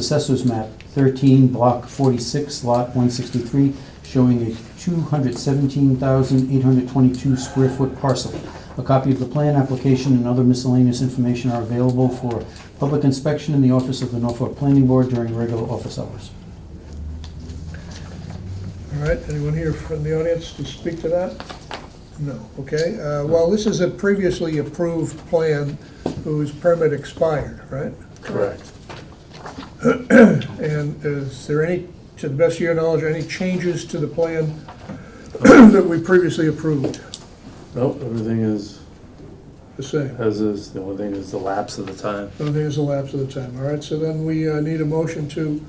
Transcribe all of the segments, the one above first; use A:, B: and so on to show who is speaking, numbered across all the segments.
A: Assessors map 13, block 46, lot 163, showing a 217,822 square foot parcel. A copy of the plan, application, and other miscellaneous information are available for public inspection in the office of the Norfolk Planning Board during regular office hours.
B: All right, anyone here from the audience to speak to that? No, okay. Uh, Well, this is a previously approved plan whose permit expired, right?
C: Correct.
B: And is there any, to the best of your knowledge, any changes to the plan that we previously approved?
C: Nope, everything is
B: The same.
C: as is. The only thing is the lapse of the time.
B: I don't think it's a lapse of the time. All right, so then we uh, need a motion to,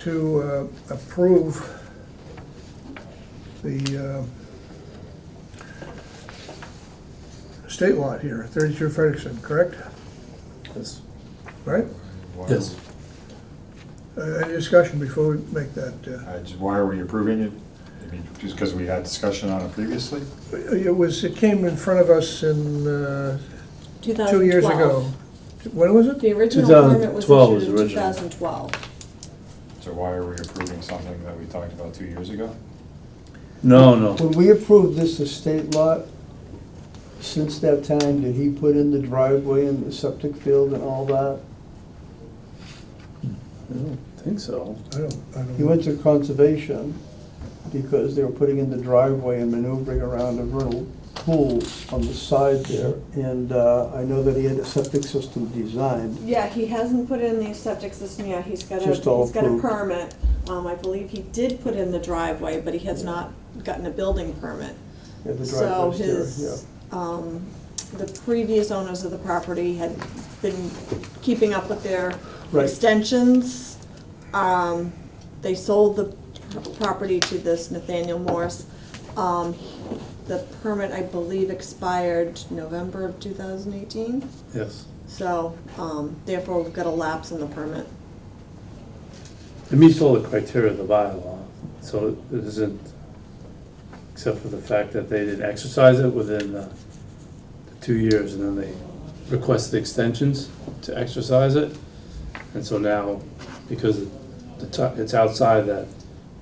B: to uh, approve the uh, state lot here, 32 Frederickson, correct?
C: Yes.
B: Right?
C: Yes.
B: Uh, Any discussion before we make that?
D: I just- Why are we approving it? I mean, just because we had discussion on it previously?
B: uh, It was, it came in front of us in, uh, two years ago. When was it?
E: The original permit was
C: 2012 was
E: issued in
C: original.
E: 2012.
D: So why are we approving something that we talked about two years ago?
C: No, no.
F: When we approved this estate lot, since that time, did he put in the driveway and the septic field and all that?
C: I don't think so.
B: I don't, I
F: He
B: don't,
F: went to conservation because they were putting in the driveway and maneuvering around a vernal pool on the side there. And uh, I know that he had a septic system designed.
E: Yeah, he hasn't put in the septic system yet, he's got a, he's
F: Just all
E: got a
F: approved.
E: permit. Um, I believe he did put in the driveway, but he has not gotten a building permit.
F: Yeah, the
E: So
F: driveway's there,
E: his, um, the previous owners of the property had been keeping up with their
F: Right.
E: extensions. Um, they sold the property to this Nathaniel Morse. Um, the permit, I believe, expired November of two thousand eighteen,
C: Yes.
E: so, um, therefore we've got a lapse in the permit.
C: It meets all the criteria of the bylaw, so it isn't, except for the fact that they didn't exercise it within the the two years, and then they requested extensions to exercise it. And so now, because the ti- it's outside that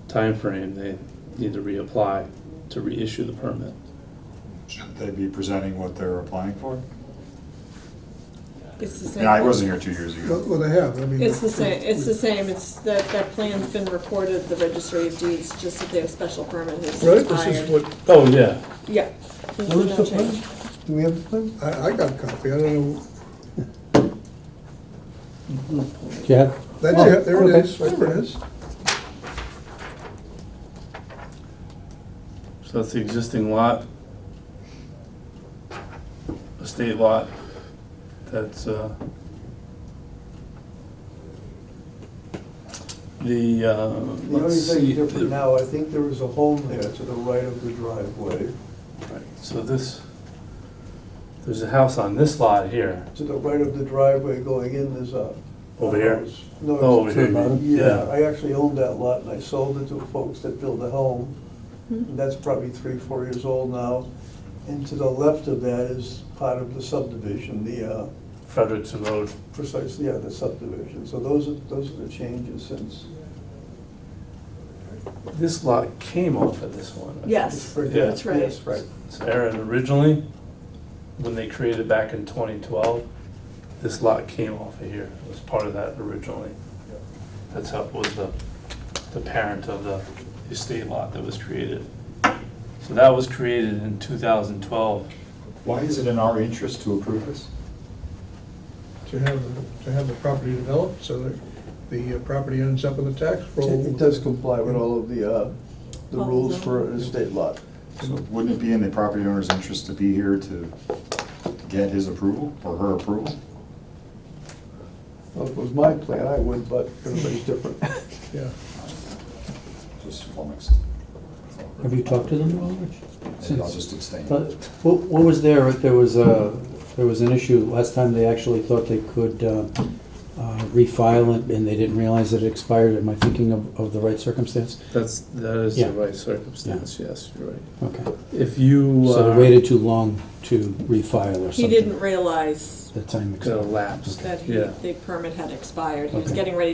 C: time frame, they need to reapply to reissue the permit.
D: Shouldn't they be presenting what they're applying for?
E: It's the same.
D: Yeah, I wasn't here two years
B: well,
D: ago.
B: well, they have, I mean.
E: It's the same, it's the same, it's, that, that plan's been recorded, at the registry of deeds, just that their special permit has
B: Right, this is
E: expired.
B: what,
C: Oh, yeah.
E: Yeah.
F: yeah. Where's the plan? Do we have a plan?
B: I, I got a copy, I don't know,
A: Yeah.
B: that's it,
F: Oh,
B: there it is, there it is.
C: So that's the existing lot. Estate lot, that's, uh, the, uh,
F: The only
C: let's see.
F: thing different now, I think there was a home there to the right of the driveway,
C: Right, So this, there's a house on this lot here,
F: to the right of the driveway going in, there's a
C: over here.
F: house. No, it's a
C: Oh, over here, you
A: turnaround.
C: mean?
F: Yeah, I actually owned that lot and I sold it to folks that built a home.
E: Hmm?
F: And that's probably three, four years old now. And to the left of that is part of the subdivision, the, uh,
C: Frederickson Road.
F: precisely, yeah, the subdivision. So those are, those are the changes since.
C: This lot came off of this one. right?
E: Yes,
C: Yeah.
E: that's right.
F: Yes, right.
C: So Aaron, originally, when they created back in twenty twelve, this lot came off of here, it was part of that originally. That's how, was the, the parent of the estate lot that was created. So that was created in two thousand twelve.
D: Why is it in our interest to approve this?
B: to have, the- to have the property developed so that the uh, property ends up in the tax roll.
F: It it does comply with all of the, uh, the rules for an estate lot.
D: So Wouldn't it be in the property owner's interest to be here to get his approval or her approval?
F: Well, if it was my plan, I would, but everybody's different.
B: Yeah,
D: Just flummoxed.
G: Have you talked to them at all, Rich?
D: Maybe I'll just abstain.
G: But What, what was there, there was a, there was an issue, last time they actually thought they could uh,
A: uh, refile it and they didn't realize that it expired. Am I thinking of, of the right circumstance?
C: That's, that is
A: Yeah.
C: the right circumstance, yes, you're right.
A: Okay.
C: If you uh,
A: So they
C: are
A: waited too long to refile or something?
E: He didn't realize
A: The time expired.
C: gonna lapse,
E: that he,
C: yeah.
E: the permit had expired. He was
A: Okay.
E: getting ready